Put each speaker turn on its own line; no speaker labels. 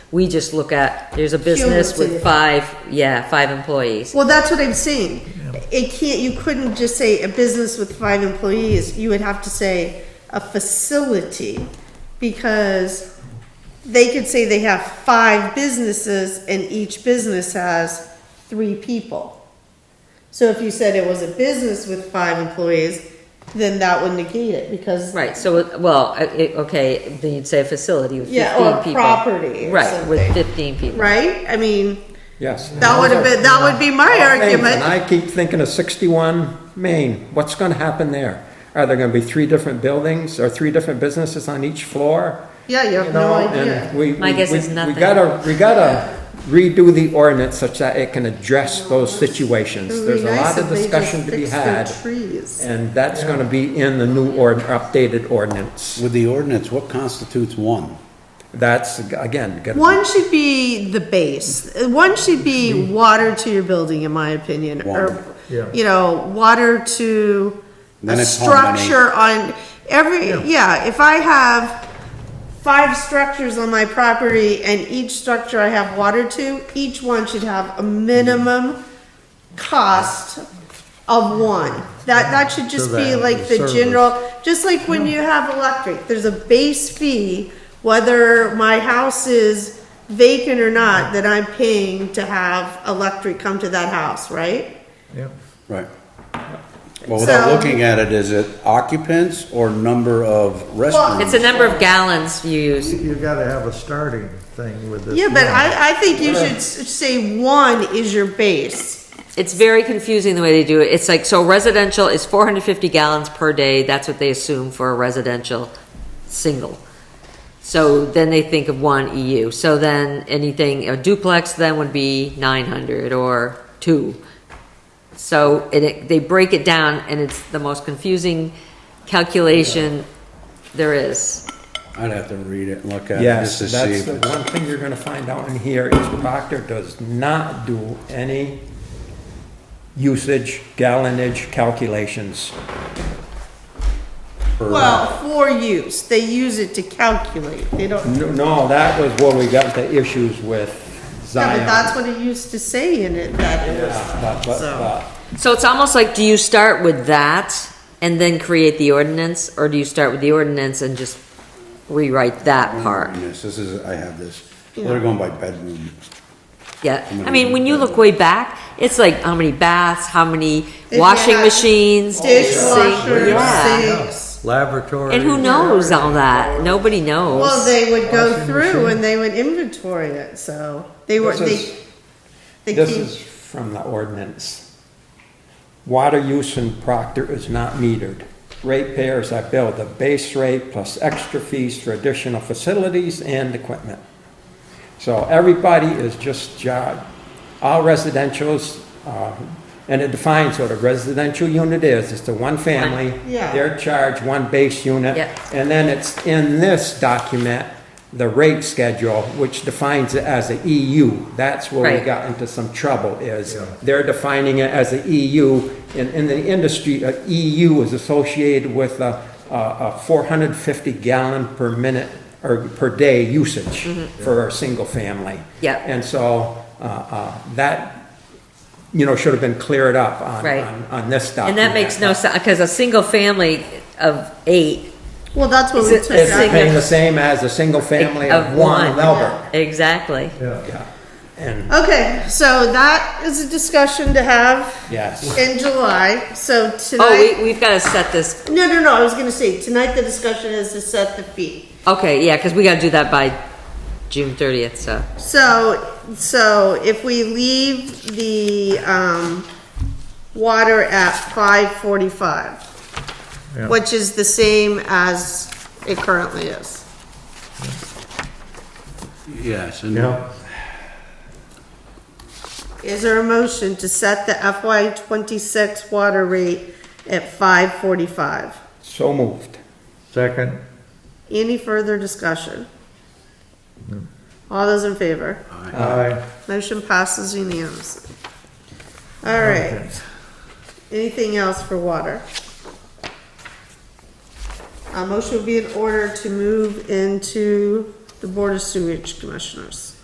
We just look at, there's a business with
Cumulative.
five, yeah, five employees.
Well, that's what I'm saying. It can't, you couldn't just say a business with five employees, you would have to say a facility, because they could say they have five businesses and each business has three people. So if you said it was a business with five employees, then that would negate it, because,
Right, so, it- well, uh, it- okay, then you'd say a facility with fifteen
Yeah,
people.
or a property or
Right, with
something.
fifteen people.
right? I mean,
Yes.
that would have been, that would be my
And
argument.
I keep thinking of 61 Main, what's going to happen there? Are there going to be three different buildings or three different businesses on each floor?
Yeah, you have
You
no
know,
idea.
and we.
My
we-
guess
we-
is nothing.
We gotta, we gotta redo the ordinance such that it can address those
It
situations.
would be
There's a
nice
lot of
if they just
discussion to be
fixed their
had,
Trees.
and that's gonna be in the new or, updated ordinance.
With the ordinance, what constitutes one?
That's, again, gotta be-
One should be the base. One should be water to your building, in my opinion, or,
Water.
Yeah.
you know, water to a
Then it's how many?
structure on every, yeah, if I have five structures on my property and each structure I have water to, each one should have a minimum cost of one. That, that should just be
that
like the
service.
general well, just like when you have electric, there's a base fee, whether my house is vacant or not, that I'm paying to have electric come to that house, right?
Yeah.
Right. Well, without
So-
looking at it, is it occupants or number of restrooms?
It's a number of gallons you use.
You gotta have a starting thing with this.
Yeah, but
one.
I, I think you should s- say one is your base.
It's very confusing the way they do it. It's like, so residential is four hundred fifty gallons per day, that's what they assume for a residential single. So then they think of one EU. So then anything, a duplex then would be nine hundred or two. So, and it, they break it down and it's the most confusing calculation there is.
I'd have to read it and look at it
Yes,
just to see.
that's
if
the
it's-
one thing you're gonna find out in here is Proctor does not do any usage, gallonage calculations.
per-
Well, for use, they use it to calculate, they don't,
No, No, that was where we got the issues with
yeah,
Zion.
but that's what it used to say in it, that it was.
But- but-
so.
but-
So it's almost like, do you start with that and then create the ordinance, or do you start with the ordinance and just rewrite
Mm-hmm.
that part?
Yes, This is, I have this. They're going by bedroom.
Yeah,
I'm gonna
Mm-hmm.
I mean,
read
when you
that.
look way back, it's like how many baths, how many
If you
washing
had
machines, sinks, yeah.
Dishwasher, sinks.
Laboratory.
And who knows all that? Nobody knows.
Well, they would go
Washing
through
machine.
and they would inventory it, so they were,
This
they,
is-
they
This is
keep,
from the ordinance. Water use in Proctor is not metered. Ratepayers are billed the base rate plus extra fees for additional facilities and equipment. So everybody is just job, all residentials, uh, and it defines what a residential unit is, it's the one family.
Yeah.
They're charged one base unit.
Yep.
And then it's in this document, the rate schedule, which defines it as a EU. That's where
Right.
we got into some trouble is they're defining it as a EU. And in the industry, a EU is associated with a, a a 450 gallon per minute or per day usage for a single family.
Mm-hmm. Yeah.
And so, uh, uh, that, you know, should have been cleared up on,
Right.
on, on this
and
document.
that makes no sense because a single family of eight
well, that's what
Is
we
it
took
a
It's
out.
paying the same as a single family
of
of one
one,
Melbourne.
exactly.
Yeah.
And,
Okay, so that is a discussion to have
yes.
in July, so
Oh,
tonight,
we, we've got to set this.
no, no, no, I was gonna say, tonight the discussion is to set the fee.
Okay, yeah, because we got to do that by June thirtieth. So
So, so if we leave the, um, water at five forty-five,
Yeah.
which is the same as it currently is.
Yes, and
Is there a motion to set the FY twenty-six water rate at five forty-five?
So moved.
Second,
Any further discussion? All those in favor?
aye.
Motion passes unanimously. All right. Anything else for water? A motion would be in order to move into the Board of Sewage Commissioners.